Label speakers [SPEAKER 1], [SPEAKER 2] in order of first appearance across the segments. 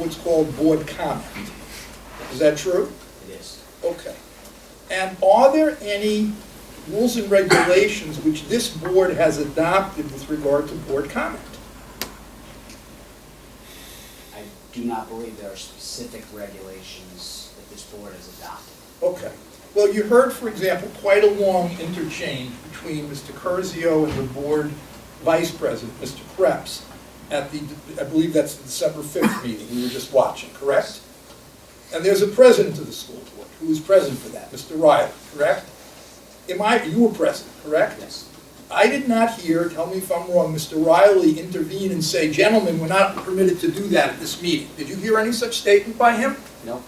[SPEAKER 1] what's called board comment. Is that true?
[SPEAKER 2] It is.
[SPEAKER 1] Okay. And are there any rules and regulations which this board has adopted with regard to board comment?
[SPEAKER 2] I do not believe there are specific regulations that this board has adopted.
[SPEAKER 1] Okay. Well, you heard, for example, quite a long interchange between Mr. Curzio and the board vice president, Mr. Krebs, at the, I believe that's the December 5th meeting we were just watching, correct? And there's a president of the school board who was present for that, Mr. Riley, correct? Am I, you were present, correct?
[SPEAKER 2] Yes.
[SPEAKER 1] I did not hear, tell me if I'm wrong, Mr. Riley intervene and say, gentlemen, we're not permitted to do that at this meeting. Did you hear any such statement by him?
[SPEAKER 2] No,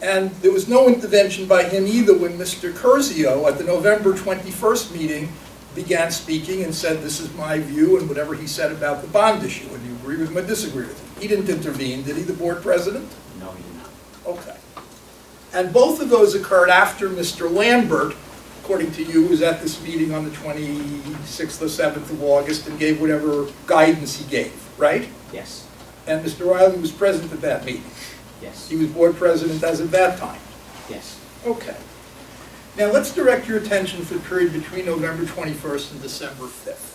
[SPEAKER 1] And there was no intervention by him either when Mr. Curzio, at the November 21st meeting, began speaking and said, this is my view, and whatever he said about the bond issue, and you agree with him or disagree with him. He didn't intervene, did he, the board president?
[SPEAKER 2] no, he did not.
[SPEAKER 1] Okay. And both of those occurred after Mr. Lambert, according to you, was at this meeting on the 26th or 7th of August and gave whatever guidance he gave, right?
[SPEAKER 2] Yes,
[SPEAKER 1] And Mr. Riley was present at that meeting.
[SPEAKER 2] yes,
[SPEAKER 1] He was board president as of that time.
[SPEAKER 2] yes.
[SPEAKER 1] Okay. Now, let's direct your attention for the period between November 21st and December 5th.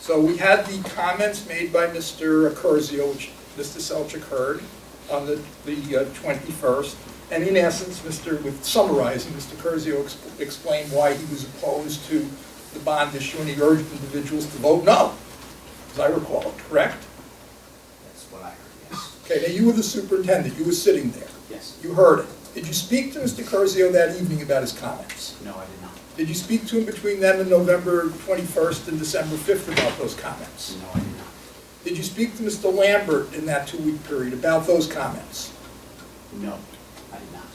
[SPEAKER 1] So we had the comments made by Mr. Curzio, which Mr. Selchuk heard, on the the uh, 21st, and in essence, Mr., with summarizing, Mr. Curzio exp- explained why he was opposed to the bond issue, and he urged individuals to vote no, as I recall, correct?
[SPEAKER 2] That's what I heard, yes,
[SPEAKER 1] Okay, now you were the superintendent, you were sitting there.
[SPEAKER 2] yes.
[SPEAKER 1] You heard it. Did you speak to Mr. Curzio that evening about his comments?
[SPEAKER 2] No, I did not.
[SPEAKER 1] Did you speak to him between then and November 21st and December 5th about those comments?
[SPEAKER 2] No, I did not.
[SPEAKER 1] Did you speak to Mr. Lambert in that two-week period about those comments?
[SPEAKER 2] No, I did not.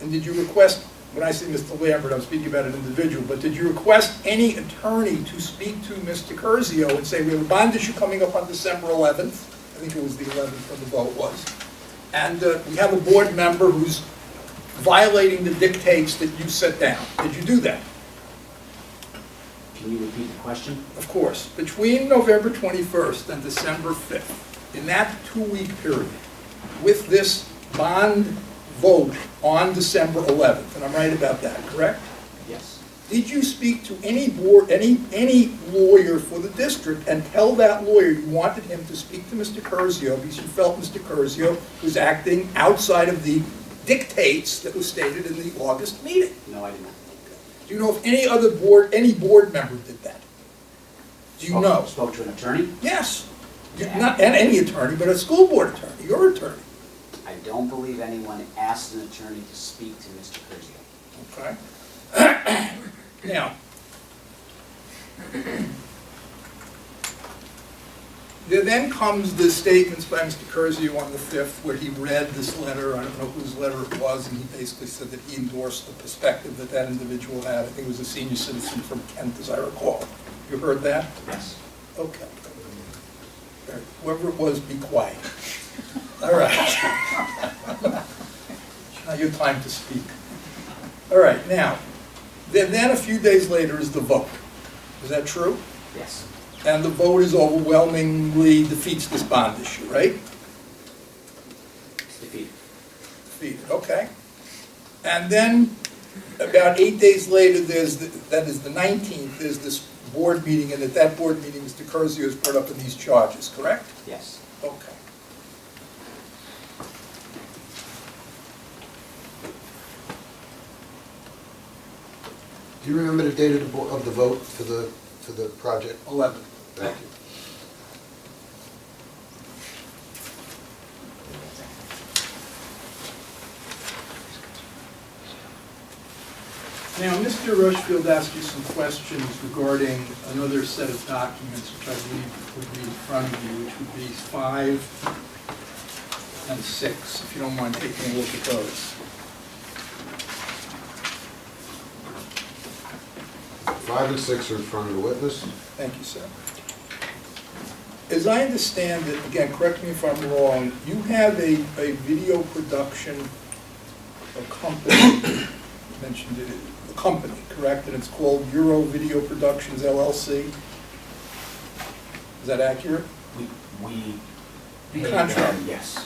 [SPEAKER 1] And did you request, when I say Mr. Lambert, I'm speaking about an individual, but did you request any attorney to speak to Mr. Curzio and say, we have a bond issue coming up on December 11th? I think it was the 11th when the vote was. And uh, we have a board member who's violating the dictates that you set down. Did you do that?
[SPEAKER 2] Can you repeat the question?
[SPEAKER 1] Of course, between November 21st and December 5th, in that two-week period, with this bond vote on December 11th, and I'm right about that, correct?
[SPEAKER 2] Yes,
[SPEAKER 1] Did you speak to any board, any, any lawyer for the district and tell that lawyer you wanted him to speak to Mr. Curzio because you felt Mr. Curzio was acting outside of the dictates that was stated in the August meeting?
[SPEAKER 2] no, I did not.
[SPEAKER 1] Do you know if any other board, any board member did that? Do you
[SPEAKER 2] Spoke-
[SPEAKER 1] know?
[SPEAKER 2] Spoke to an attorney?
[SPEAKER 1] Yes. Not, and any attorney, but a school board attorney, your attorney,
[SPEAKER 2] I don't believe anyone asked an attorney to speak to Mr. Curzio.
[SPEAKER 1] okay? Now, there then comes the statements by Mr. Curzio on the 5th where he read this letter, I don't know whose letter it was, and he basically said that he endorsed the perspective that that individual had. I think it was a senior citizen from Kent, as I recall. You heard that?
[SPEAKER 2] Yes.
[SPEAKER 1] Okay. Whoever it was, be quiet. All right. Now your time to speak. All right, now, then, then a few days later is the vote. Is that true?
[SPEAKER 2] Yes,
[SPEAKER 1] And the vote is overwhelmingly defeats this bond issue, right?
[SPEAKER 2] it's defeated.
[SPEAKER 1] Defeated, okay. And then, about eight days later, there's, the- that is the 19th, there's this board meeting, and at that board meeting, Mr. Curzio is brought up in these charges, correct?
[SPEAKER 2] Yes,
[SPEAKER 1] Okay.
[SPEAKER 3] Do you remember the date of the, bo- of the vote for the, for the project?
[SPEAKER 1] 11.
[SPEAKER 3] Thank you.
[SPEAKER 1] Now, Mr. Rushfield asked you some questions regarding another set of documents, which I believe would be in front of you, which would be five and six, if you don't mind taking a look at those.
[SPEAKER 3] Five and six are in front of the witness.
[SPEAKER 1] Thank you, sir. As I understand it, again, correct me if I'm wrong, you have a, a video production a company, you mentioned it, a company, correct? And it's called Euro Video Productions LLC? Is that accurate?
[SPEAKER 2] we, we
[SPEAKER 1] contract.
[SPEAKER 2] Yes.